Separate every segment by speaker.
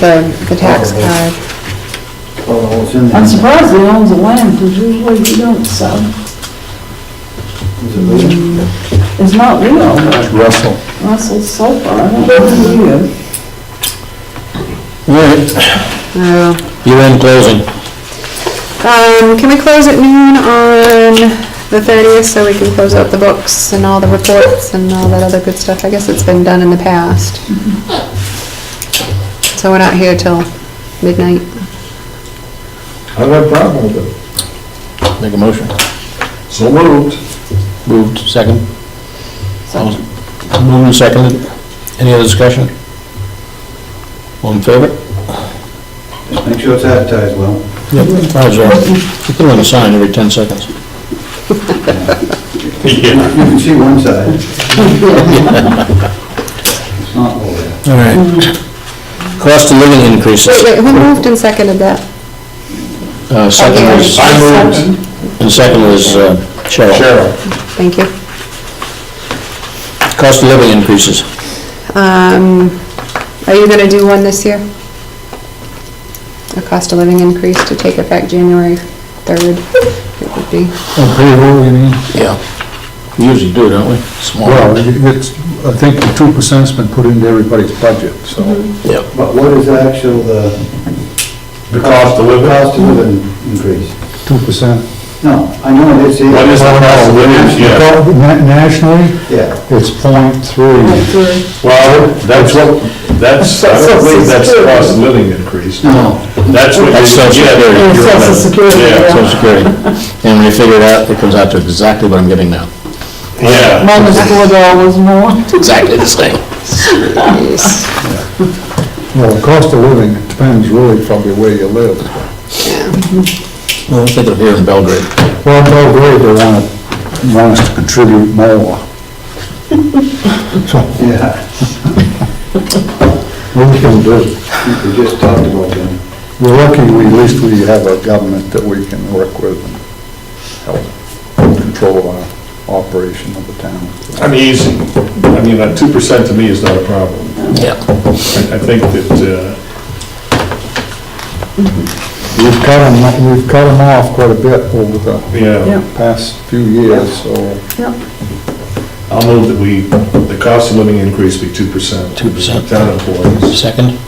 Speaker 1: the, the tax card.
Speaker 2: Well, it's in there.
Speaker 3: I'm surprised he owns the land, because usually he don't sell.
Speaker 2: Is it legal?
Speaker 3: It's not Leo, but
Speaker 4: Russell.
Speaker 3: Russell's so far, I don't know who he is.
Speaker 4: All right, you're in closing.
Speaker 1: Um, can we close at noon on the thirtieth so we can close out the books and all the reports and all that other good stuff? I guess it's been done in the past. So we're not here till midnight.
Speaker 2: I have a problem with it.
Speaker 4: Make a motion.
Speaker 2: So moved.
Speaker 4: Moved, second. Moved and seconded. Any other discussion? All in favor?
Speaker 2: Just make sure it's advertised well.
Speaker 4: Yep. Five zero. You put on a sign every 10 seconds.
Speaker 2: You can see one side. It's not all there.
Speaker 4: All right. Cost of living
Speaker 1: Wait,
Speaker 4: increases.
Speaker 1: wait, who moved and seconded that?
Speaker 4: Uh, Second was, and second was uh, Cheryl.
Speaker 5: Cheryl.
Speaker 1: Thank you.
Speaker 4: Cost of living increases.
Speaker 1: Um, are you gonna do one this year? A cost of living increase to take effect January third, it would be.
Speaker 4: Oh,
Speaker 6: On payroll, you mean?
Speaker 4: Yeah. We usually do, don't we?
Speaker 5: Oh.
Speaker 4: Small.
Speaker 6: Well, it's, I think the two percent's been put into everybody's budget, so.
Speaker 5: Mm-hmm.
Speaker 4: Yep.
Speaker 2: But what is the actual, the
Speaker 5: The cost of living.
Speaker 2: cost of living increase?
Speaker 6: Two percent.
Speaker 2: No, I know it is.
Speaker 5: What is the cost of living? Yeah.
Speaker 6: Nationally,
Speaker 2: Yeah.
Speaker 6: it's point three.
Speaker 5: Well, that's what, that's, I don't believe that's the cost of living increase.
Speaker 2: No.
Speaker 5: That's what
Speaker 4: That's
Speaker 5: you
Speaker 4: Social
Speaker 5: get.
Speaker 4: Security.
Speaker 5: if you're
Speaker 3: Yeah, Social
Speaker 5: on-
Speaker 3: Security,
Speaker 5: Yeah,
Speaker 4: Social Security. And when you figure it out, it comes out to exactly what I'm getting now.
Speaker 5: yeah.
Speaker 3: Minus four dollars more.
Speaker 4: Exactly the same.
Speaker 6: Well, the cost of living depends really probably where you live.
Speaker 4: Well, I think of here in Belgrade.
Speaker 6: Well, no, really, they want, want us to contribute more.
Speaker 2: Yeah,
Speaker 6: What we can do,
Speaker 2: I think we just talked about that.
Speaker 6: we're lucky, we, at least we have a government that we can work with and help control our operation of the town.
Speaker 5: I mean, he's, I mean, that two percent to me is not a problem.
Speaker 4: Yeah.
Speaker 5: I I think that, uh,
Speaker 6: We've cut them, we've cut them off quite a bit over the
Speaker 5: yeah,
Speaker 6: past few years, so.
Speaker 5: I'll move that we, the cost of living increase be two percent.
Speaker 4: 2%.
Speaker 5: Town employees.
Speaker 4: Second?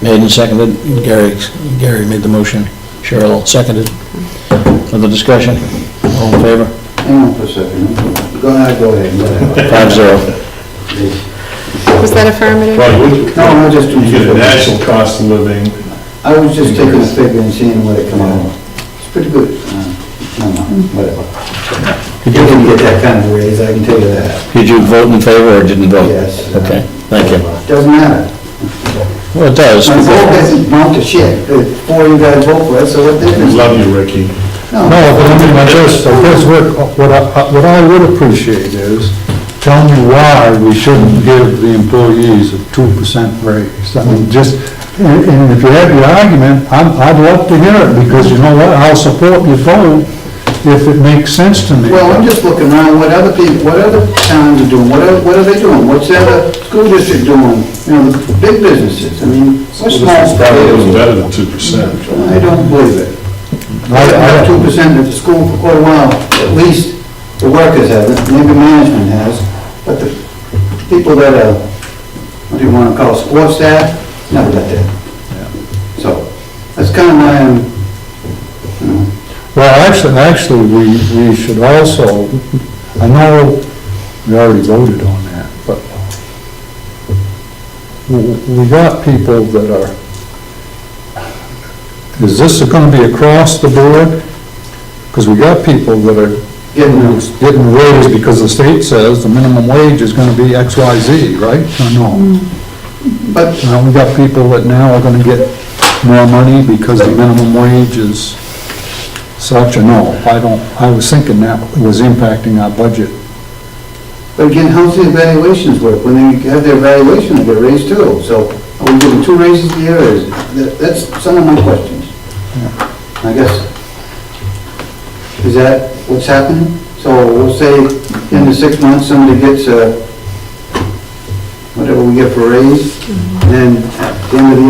Speaker 4: Made and seconded. Gary, Gary made the motion. Cheryl seconded. Other discussion? All in favor?
Speaker 2: Hang on for a second. Go ahead, go ahead, whatever.
Speaker 4: Five zero.
Speaker 1: Was that affirmative?
Speaker 5: Well, you,
Speaker 2: No, I'm just.
Speaker 5: you get a national cost of living,
Speaker 2: I was just taking a figure and seeing what it come out. It's pretty good. Uh, No, no, whatever. You didn't get that kind of raise, I can tell you that.
Speaker 4: Did you vote in favor or didn't vote?
Speaker 2: Yes.
Speaker 4: Okay, thank you.
Speaker 2: Doesn't matter.
Speaker 4: Well, it does.
Speaker 2: My vote doesn't amount to shit. The Four of you guys vote for it, so what
Speaker 5: we
Speaker 2: difference?
Speaker 5: love you, Ricky.
Speaker 2: No.
Speaker 6: No, but I mean, I guess, I guess what, what I, what I would appreciate is, tell me why we shouldn't give the employees a two percent raise. I mean, just, and and if you have your argument, I'm, I'd love to hear it, because you know what, I'll support your vote if it makes sense to me.
Speaker 2: Well, I'm just looking around, what other people, what other towns are doing, what are, what are they doing? What's the other school district doing? You know, the big businesses, I mean, what
Speaker 5: This
Speaker 2: small?
Speaker 5: is probably
Speaker 2: I
Speaker 5: was better than two percent.
Speaker 2: don't believe it.
Speaker 6: I-
Speaker 2: I've
Speaker 6: I-
Speaker 2: had two percent at the school for quite a while, at least the workers have, it. maybe management has, but the people that are, what do you wanna call, it, support staff, never got that. So, that's kinda um, why I'm,
Speaker 6: Well, actually, actually, we, we should also, I know we already voted on that, but w- we got people that are, is this gonna be across the board? Because we got people that are
Speaker 2: getting those
Speaker 6: getting raised because the state says the minimum wage is gonna be X, Y, Z, right? Or no?
Speaker 2: But
Speaker 6: Now, we got people that now are gonna get more money because the minimum wage is such, or no, I don't, I was thinking that was impacting our budget.
Speaker 2: But again, how's the evaluations work? When they have their evaluation, they get raised too. So are we giving two raises a year? Is- that- That's some of my questions. I guess, is that what's happening? So we'll say in the six months, somebody gets a, whatever we get for raise, then at the end of the